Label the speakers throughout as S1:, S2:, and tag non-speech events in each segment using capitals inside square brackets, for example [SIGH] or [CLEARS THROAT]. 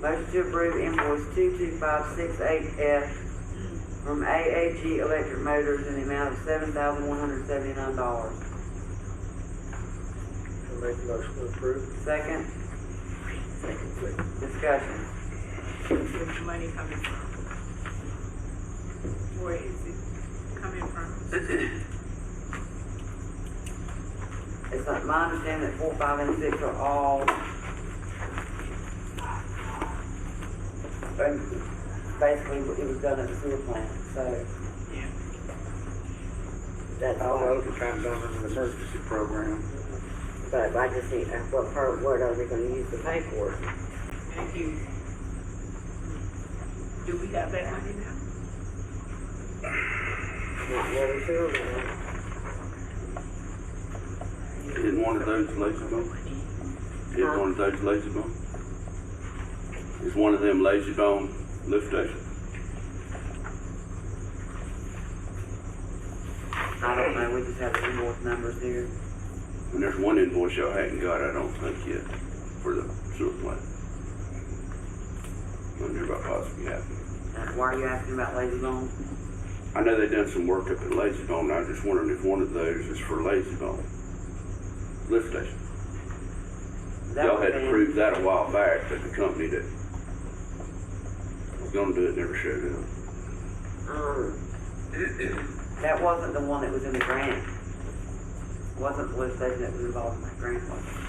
S1: Motion to approve invoice two-two-five-six-eight-F from AAG Electric Motors in the amount of seven thousand one hundred seventy-nine dollars.
S2: I make a motion to approve.
S1: Second,
S2: Second, please.
S1: discussion.
S3: Where's the money coming from? Where is it coming from?
S1: It's not, my understanding that four, five, and six are all. And basically, it was done at the sewer plant, so
S3: Yeah.
S4: That's all.
S5: All those are kind of done under the emergency program.
S4: But I just need, uh, what part, what are we gonna use to pay for it?
S3: Thank you. Do we have that money now?
S4: Not water sewer, no.
S5: Did one of those lazy bones? Did one of those lazy bones? Is one of them lazy bone lift station?
S1: I don't know, we just have the invoice numbers here.
S5: And there's one invoice y'all hadn't got, I don't think yet, for the sewer plant. Wonder about possibly happening.
S1: Uh, Why are you asking about Lazy Bone?
S5: I know they done some work up at Lazy Bone, I was just wondering if one of those is for Lazy Bone. Lift station.
S1: That
S5: Y'all
S1: would've
S5: had
S1: been-
S5: approved that a while back, but the company that was gonna do it never showed up.
S4: Um,
S1: That wasn't the one that was in the grant. Wasn't the lift station that was involved in that grant, was it?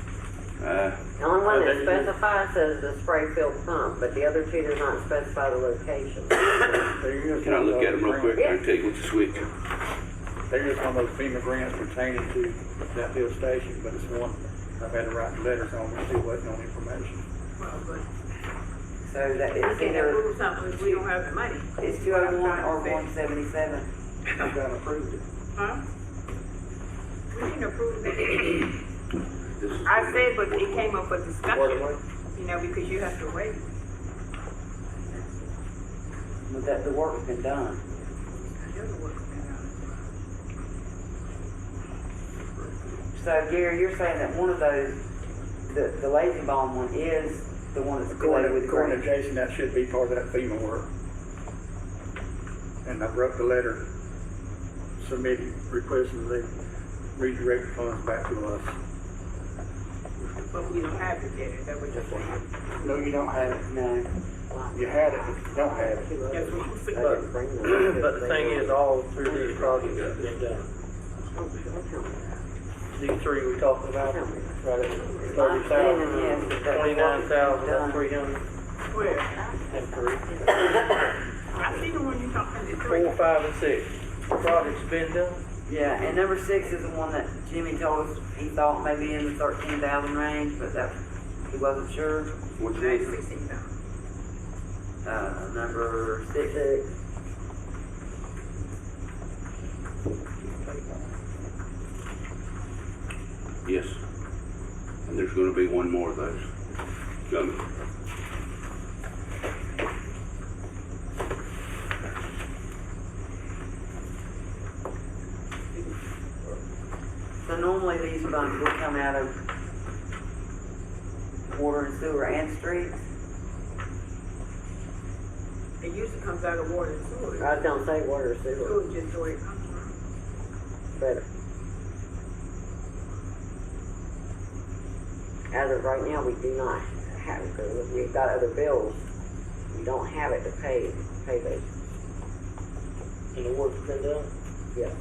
S5: Uh,
S4: the only one that
S5: Okay.
S4: specifies is the spray field pump, but the other two do not specify the location.
S2: [COUGHS] They're just
S5: Can I
S2: one of
S5: look at
S2: those
S5: them real quick?
S2: grants-
S5: I can tell you what the switch.
S2: They're just one of those FEMA grants pertaining to that field station, but it's one, I've had to write letters on, we still waiting on information.
S3: Well, but
S1: So that,
S3: we
S1: it's
S3: can
S1: either,
S3: approve something if we don't have the money.
S1: it's two oh one or one seventy-seven.
S2: I've got approved it.
S3: Huh? We can approve that.
S5: This is-
S3: I said, but it came up for discussion,
S2: Waterway.
S3: you know, because you have to wait.
S1: But that, the work's been done.
S3: I don't know what's going on.
S1: So Gary, you're saying that one of those, the, the Lazy Bone one is the one that's related with
S2: According
S1: the
S2: according to
S1: grant?
S2: Jason, that should be part of that FEMA work. And I wrote the letter, submitted, requesting they redirect funds back to us.
S3: But we don't have it yet, is that what you're saying?
S2: No, you don't have it.
S1: No.
S2: You had it, but you don't have it.
S3: That's what you
S4: They
S3: said.
S4: didn't bring them.
S6: [CLEARS THROAT] But the thing is, all three of these projects have been done. These three we talked about, right at
S1: My
S6: thirty
S1: understanding is
S6: thousand,
S1: that that work
S6: twenty-nine
S1: has been
S6: thousand,
S1: done.
S6: three hundred
S3: Where?
S6: and three.
S1: [COUGHS]
S3: I see the one you talking, it's three.
S6: Four, five, and six, projects been done,
S1: Yeah, and number six is the one that Jimmy told us he thought maybe in the thirteen thousand range, but that, he wasn't sure.
S5: Which
S3: Nine
S5: one?
S3: sixteen thousand.
S1: Uh, number six,
S5: Yes. And there's gonna be one more of those coming.
S1: so normally these funds will come out of water and sewer and streets.
S3: It usually comes out of water and sewer.
S4: I don't say water sewer,
S3: Sewer just where it comes from.
S4: but as of right now, we do not have, it, 'cause we've got other bills. We don't have it to pay, pay those
S6: and the work's been done.
S4: Yes.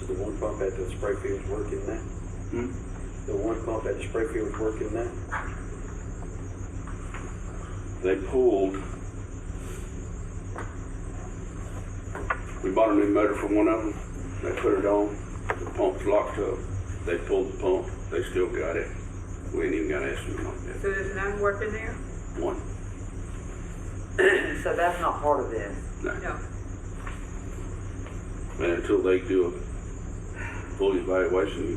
S7: So the one pump at the spray field's working now?
S5: Hmm?
S7: The one pump at the spray field's working now?
S5: They pulled. We bought a new motor for one of them. They put it on. The pump's locked up. They pulled the pump. They still got it. We ain't even got an estimate on that.
S3: So there's none working there?
S5: One.
S1: [CLEARS THROAT] So that's not part of this.
S3: No.
S5: And until they do a full evaluation,